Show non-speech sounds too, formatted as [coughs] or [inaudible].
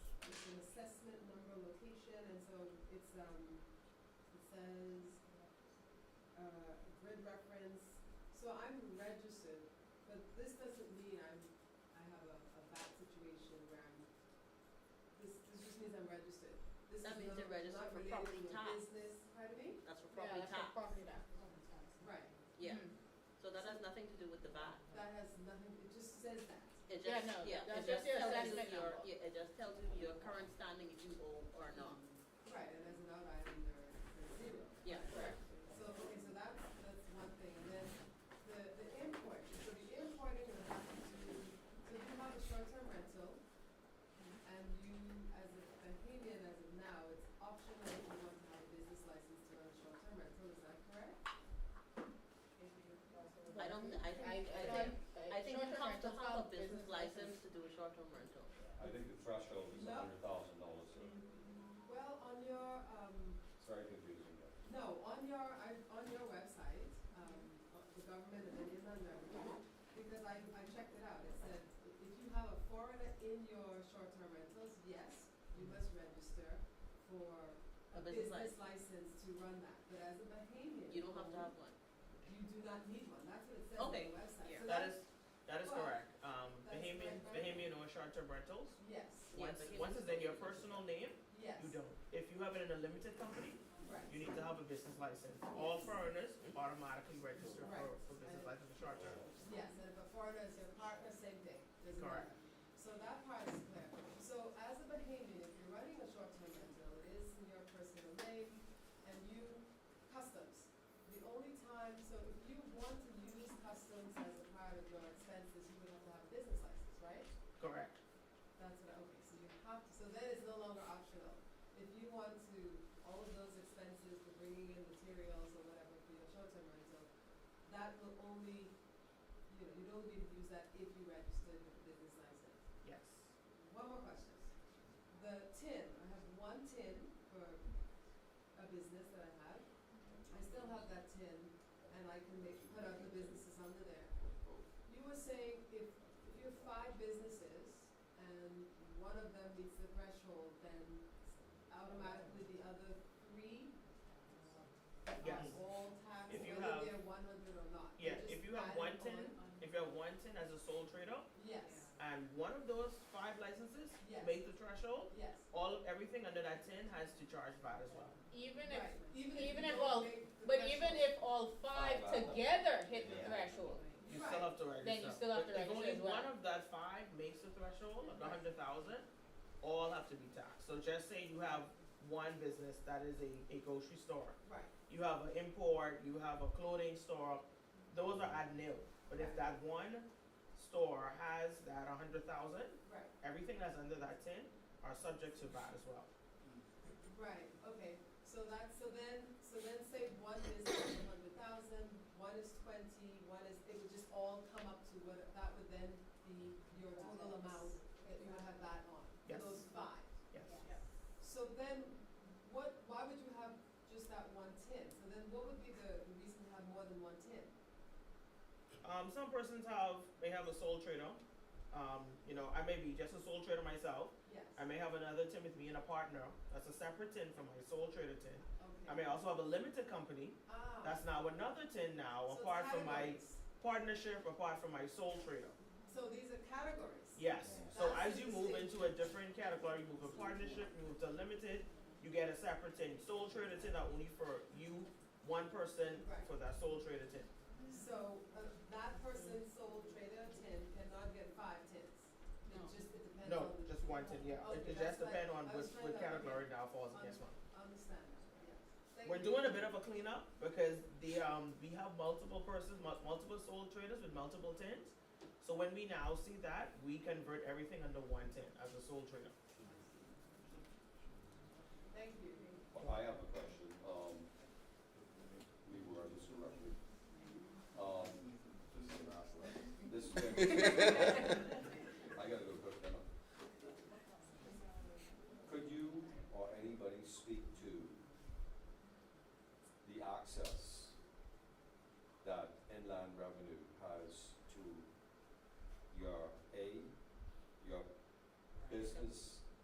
it's, um, it says, uh, grid reference, so I'm registered, but this doesn't mean I'm, I have a, a bad situation where I'm, this, this just means I'm registered. This is That means not- you're registered not for related to property a tax. Business, pardon me? That's for Yeah, property tax. that's for property tax. Right, Yeah, Mhm. so that has nothing to do with the VAT. that has nothing, it just says that. It Yeah, just, no, yeah, that's it just just the tells you assessment your, number. yeah, it just tells you your current standing if you owe or not. Right, and as an out item, they're, they're zero. Yeah, correct. So, okay, so that's, that's one thing, and then the, the import, so the importing would have to, do- so if you have a short-term rental, and you, as a Bahamian, as of now, it's optional if you want to have a business license to run a short-term rental, is that correct? I don't, I think, I- I think, I think you short-term have to have a rentals business license to do a short-term rental. I think the threshold is No. a hundred thousand dollars, so Well, on your, um, it's very confusing, but No, on your, I, on your website, um, of the government and then on revenue, because I, I checked it out, it said, if you have a foreigner in your short-term rentals, yes, you must register for a A business business license to run that, but as a Bahamian. You don't have to have one. You do not need one, that's what it says on the Okay, website. yeah. So That that's- is, that is Well, correct. Um, that's Bahamian, correct, right? Bahamian or short-term rentals. Yes, Yeah, Once, Bahamian once it's in your short-term personal name, yes. you don't. If you have it in a limited company, Right. you need to have a business license. All foreigners automatically register for, Right. for business license for short-term. Yes, and if a foreigner is your partner, same thing, doesn't Correct. matter. So that part is clear. So as a Bahamian, if you're running a short-term rental, it is in your personal name and you, customs. The only time, so if you want to use customs as a part of your expenses, you would have to have a business license, right? Correct. That's what, I- okay, so you have to, so that is no longer optional. If you want to, all of those expenses for bringing in materials or whatever for your short-term rental, that will only, you know, you'd only be able to use that if you registered with the business license. Yes. One more question. The tin, I have one tin for a business that I have. I still have that tin and I can make, put out the businesses under there. You were saying if, if you have five businesses and one of them meets the threshold, then automatically the other three uh, Yes. are all taxed, If you whether have- they're one hundred or not. They Yeah, just if you add have it one tin, on. if you have one tin as a sole trader, Yes, and one of those five licenses Yes. make the threshold, yes. all, everything under that tin has to charge VAT as well. Even Right. if, Even if even you if don't all, make the but even threshold. if all five Five out. together hit the Yeah. threshold, You Right. still have to register. Then you still have to But register as If only well. one of that five makes the threshold of the hundred thousand, all have to be taxed. So just say you have one business that is a, a grocery store, Right, you have an import, you have a clothing store, those are at nil. But if that one store has that a hundred thousand, right. everything that's under that ten are subject to VAT as well. Right, okay, so that's, so then, so then say one is [coughs] a hundred thousand, one is twenty, one is, it would just all come up to what, that would then be your total amount that you would have that on, Yes. those five. Yes. So then, what, why would you have just that one tin? So then what would be the the reason to have more than one tin? Um, some persons have, may have a sole trader. Um, you know, I may be just a sole trader myself. Yes, I may have another tin with me and a partner. That's a separate tin from my sole trader tin. okay. I may also have a limited company. Ah. That's now another tin So now, it's apart from my categories. partnership, apart from my sole trader. So these are categories? Yes. So That's as you move interesting. into a different category, you move to partnership, you move to limited, you get a separate tin. Sole trader tin are only for you, one person Right. for that sole trader tin. So uh, that person sold trader tin cannot get five tins. No. It just, it depends No, on the. just one tin. Yeah. It, Okay, it just that's depends what- on I which, was trying which to- category now falls against Un- one. Understand, yes. Thank We're you. doing a bit of a cleanup because the um we have multiple persons, mul- multiple sole traders with multiple tins. So when we now see that, we convert everything under one tin as a sole trader. Thank you. Well, Oh, I have a question, um, we were disrupted. Um, this is. I gotta go cook dinner. Could you or anybody speak to the access that inland revenue has to your A, your business